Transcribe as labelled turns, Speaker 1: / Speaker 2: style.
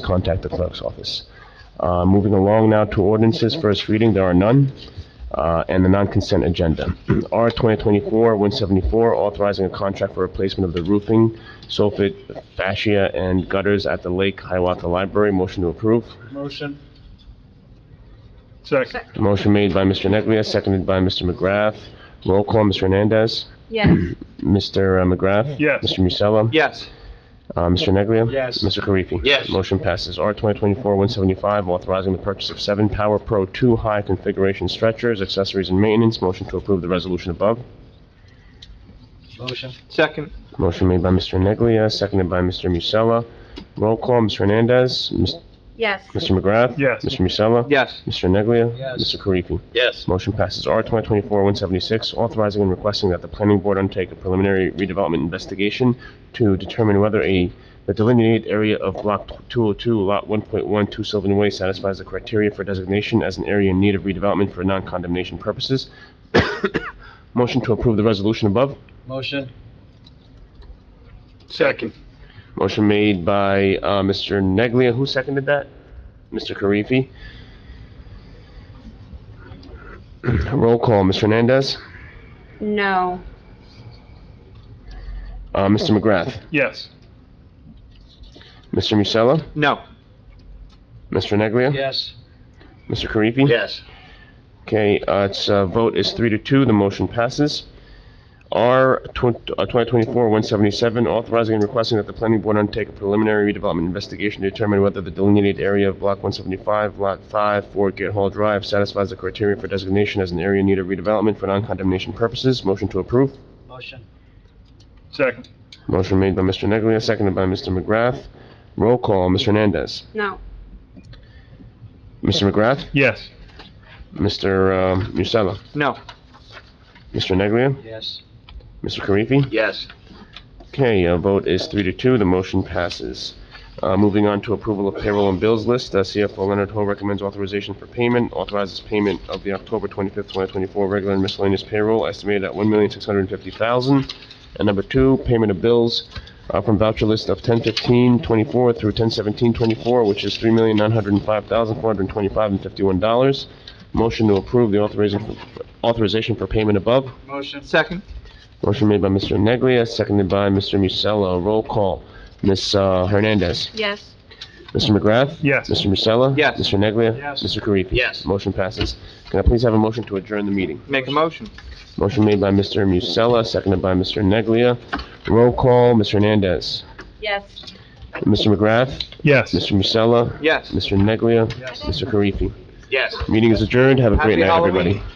Speaker 1: contact the clerk's office. Uh, Moving along now to ordinances, first reading, there are none, uh, and the non-consent agenda. R 2024-174, authorizing a contract for replacement of the roofing, soffit, fascia, and gutters at the Lake Hiawatha Library. Motion to approve.
Speaker 2: Motion. Second.
Speaker 1: Motion made by Mr. Neglia, seconded by Mr. McGrath. Roll call, Mr. Hernandez.
Speaker 3: Yes.
Speaker 1: Mr. uh, McGrath?
Speaker 2: Yes.
Speaker 1: Mr. Musella?
Speaker 4: Yes.
Speaker 1: Uh, Mr. Neglia?
Speaker 4: Yes.
Speaker 1: Mr. Karifi?
Speaker 4: Yes.
Speaker 1: Motion passes. R 2024-175, authorizing the purchase of seven Power Pro 2 high configuration stretchers, accessories, and maintenance. Motion to approve the resolution above.
Speaker 4: Motion. Second.
Speaker 1: Motion made by Mr. Neglia, seconded by Mr. Musella. Roll call, Mr. Hernandez? Mis-
Speaker 3: Yes.
Speaker 1: Mr. McGrath?
Speaker 2: Yes.
Speaker 1: Mr. Musella?
Speaker 4: Yes.
Speaker 1: Mr. Neglia?
Speaker 4: Yes.
Speaker 1: Mr. Karifi?
Speaker 4: Yes.
Speaker 1: Motion passes. R 2024-176, authorizing and requesting that the planning board undertake a preliminary redevelopment investigation to determine whether a, the delineated area of Block 202, Lot 1.1, 2 Sylvan Way satisfies the criteria for designation as an area in need of redevelopment for non-condemnation purposes. Motion to approve the resolution above.
Speaker 4: Motion. Second.
Speaker 1: Motion made by uh, Mr. Neglia. Who seconded that? Mr. Karifi. Roll call. Mr. Hernandez.
Speaker 3: No.
Speaker 1: Uh, Mr. McGrath.
Speaker 2: Yes.
Speaker 1: Mr. Musella?
Speaker 4: No.
Speaker 1: Mr. Neglia?
Speaker 4: Yes.
Speaker 1: Mr. Karifi?
Speaker 4: Yes.
Speaker 1: Okay, uh, it's, uh, vote is three to two, the motion passes. R uh, twenty twenty-four one seventy-seven, authorizing and requesting that the planning board undertake a preliminary redevelopment investigation to determine whether the delineated area of block one seventy-five, lot five, four Gate Hall Drive satisfies the criteria for designation as an area in need of redevelopment for non-condemnation purposes. Motion to approve.
Speaker 4: Motion.
Speaker 2: Second.
Speaker 1: Motion made by Mr. Neglia, seconded by Mr. McGrath. Roll call, Mr. Hernandez.
Speaker 3: No.
Speaker 1: Mr. McGrath?
Speaker 2: Yes.
Speaker 1: Mr. uh, Musella?
Speaker 4: No.
Speaker 1: Mr. Neglia?
Speaker 4: Yes.
Speaker 1: Mr. Karifi?
Speaker 4: Yes.
Speaker 1: Okay, uh, vote is three to two, the motion passes. Uh, Moving on to approval of payroll and bills list, uh, CFO Leonard Ho recommends authorization for payment, authorizes payment of the October 25th, 2024 regular and miscellaneous payroll estimated at $1,650,000. And number two, payment of bills uh, from voucher list of 10/15/24 through 10/17/24, which is $3,905,425.51. Motion to approve the authorization authorization for payment above.
Speaker 4: Motion. Second.
Speaker 1: Motion made by Mr. Neglia, seconded by Mr. Musella. Roll call. Ms. uh, Hernandez.
Speaker 3: Yes.
Speaker 1: Mr. McGrath?
Speaker 2: Yes.
Speaker 1: Mr. Musella?
Speaker 4: Yes.
Speaker 1: Mr. Neglia?
Speaker 2: Yes.
Speaker 1: Mr. Karifi?
Speaker 4: Yes.
Speaker 1: Motion passes. Can I please have a motion to adjourn the meeting?
Speaker 4: Make a motion.
Speaker 1: Motion made by Mr. Musella, seconded by Mr. Neglia. Roll call. Mr. Hernandez.
Speaker 3: Yes.
Speaker 1: Mr. McGrath?
Speaker 2: Yes.
Speaker 1: Mr. Musella?
Speaker 4: Yes.
Speaker 1: Mr. Neglia?
Speaker 4: Yes.
Speaker 1: Mr. Karifi?
Speaker 4: Yes.
Speaker 1: Meeting is adjourned. Have a great
Speaker 4: Happy
Speaker 1: night, everybody.
Speaker 4: Halloween.